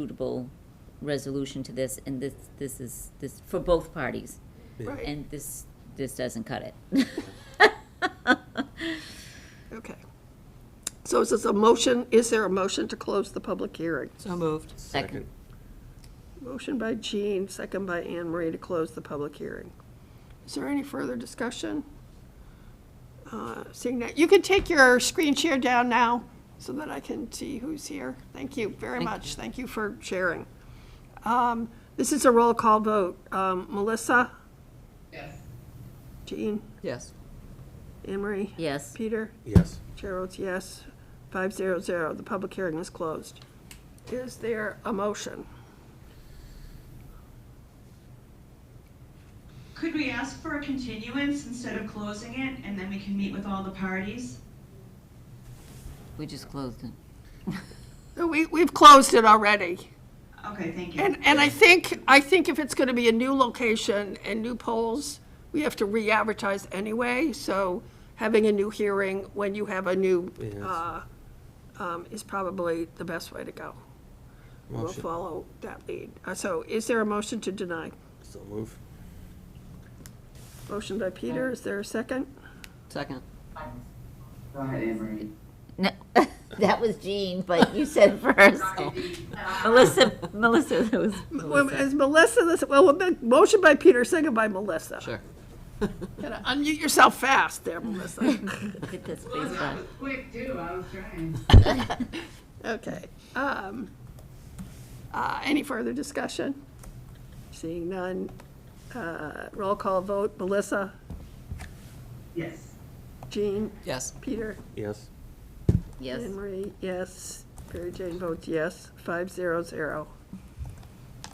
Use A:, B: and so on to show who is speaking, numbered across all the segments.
A: suitable resolution to this, and this, this is, this, for both parties.
B: Right.
A: And this, this doesn't cut it.
B: Okay. So is this a motion, is there a motion to close the public hearing?
C: So moved.
A: Second.
B: Motion by Jean, second by Anne Marie to close the public hearing. Is there any further discussion? Uh, Seeing that, you can take your screen share down now so that I can see who's here. Thank you very much. Thank you for sharing. Um, This is a roll call vote. Um, Melissa? Yes. Jean?
C: Yes.
B: Anne Marie?
A: Yes.
B: Peter?
D: Yes.
B: Chair votes yes, five zero zero, the public hearing is closed. Is there a motion?
E: Could we ask for a continuance instead of closing it, and then we can meet with all the parties?
A: We just closed it.
B: No, We, we've closed it already,
E: Okay, thank you.
B: and, and I think, I think if it's gonna be a new location and new polls, we have to re-advertise anyway, so having a new hearing when you have a new,
D: Yes.
B: uh, um, is probably the best way to go. We'll
D: Motion.
B: follow that lead. Uh, So is there a motion to deny?
D: So move.
B: Motion by Peter, is there a second?
C: Second.
F: Go ahead, Emery.
A: No, that was Jean, but you said first. Melissa, Melissa, that was
B: Well,
A: Melissa.
B: Is Melissa, this- well, the motion by Peter, second by Melissa.
C: Sure.
B: Gotta unmute yourself fast there, Melissa.
A: Get this face back.
F: Quick, too, I was trying.
B: Okay. um, uh, Any further discussion? Seeing none. uh, Roll call vote, Melissa,
F: Yes.
B: Jean,
C: Yes.
B: Peter,
D: Yes.
A: Yes,
B: Anne Marie, yes. Mary Jane votes yes, five zero zero.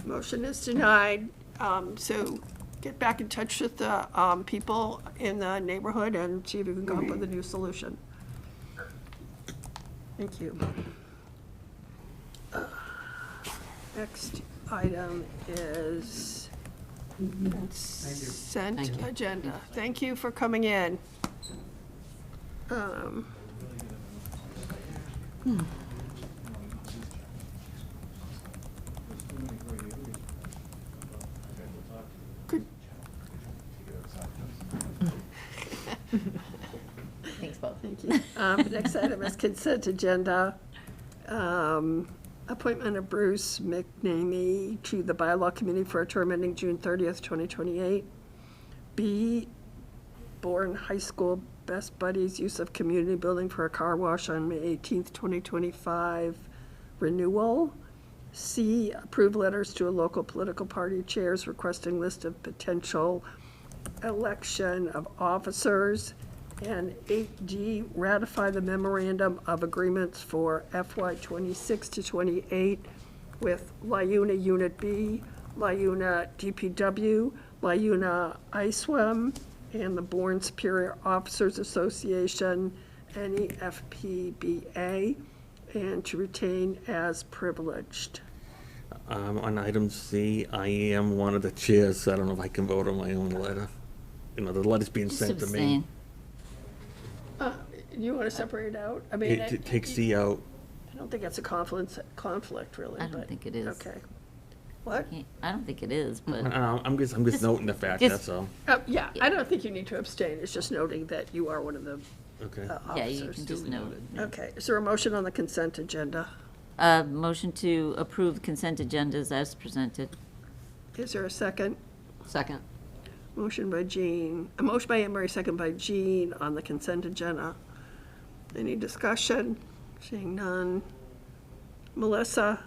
B: Motion is denied, Um, so get back in touch with the um, people in the neighborhood and see if you can come up with a new solution. Thank you. Next item is consent
C: Thank you.
B: agenda. Thank you for coming in. Um, Could-
A: thanks, Bob.
B: Thank you. Um, Next item is consent agenda. Um, Appointment of Bruce McNamee to the Bylaw Committee for a term ending June 30th, 2028. B, Bourne High School Best Buddies Use of Community Building for a Car Wash on May 18th, 2025 renewal. C, approve letters to a local political party chairs requesting list of potential election of officers. And eight D, ratify the memorandum of agreements for FY twenty-six to twenty-eight with Liuna Unit B, Liuna DPW, Liuna ISWAM, and the Bourne Superior Officers Association, E NEFPBA, and to retain as privileged.
D: Um, on item C, I am one of the chairs, so I don't know if I can vote on my own letter. You know, the letter's being
A: Just
D: sent to me.
A: abstain.
B: Uh, You want to separate it out? I mean,
D: It t- takes C out.
B: I don't think it's a conflict, conflict really,
A: I don't
B: but-
A: think it is.
B: Okay. What?
A: Can't- I don't think it is, but
D: Uh, I'm just, I'm just noting the fact,
A: just-
D: that's all.
B: Uh, Yeah, I don't think you need to abstain, it's just noting that you are one of the
D: Okay.
B: uh,
A: yeah, you can
B: officers.
A: just note.
B: Okay, is there a motion on the consent agenda?
A: Uh, motion to approve consent agendas as presented.
B: Is there a second?
C: Second.
B: Motion by Jean, a motion by Anne Marie, second by Jean on the consent agenda. Any discussion? Seeing none. Melissa,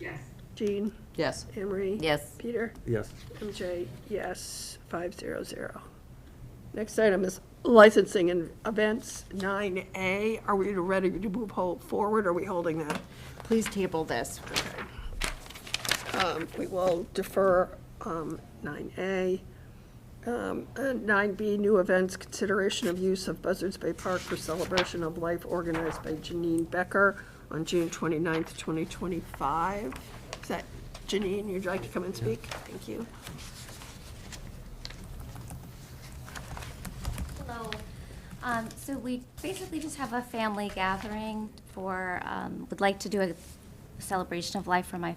F: Yes.
B: Jean,
C: Yes.
B: Anne Marie?
A: Yes,
B: Peter?
D: Yes.
B: MJ, yes, E five zero zero. Next item is licensing and events, nine A. Are we ready to move whole forward, or are we holding that?
G: Please table this.
B: Um, We will defer um, 9A. Um, and 9B, new events, consideration of use of Buzzards Bay Park for celebration of life organized by Janine Becker on June 29th, 2025. Is that, Janine, you'd like to come and speak? Thank you.
H: Hello. Um, So we basically just have a family gathering for, um, would like to do a celebration of life for my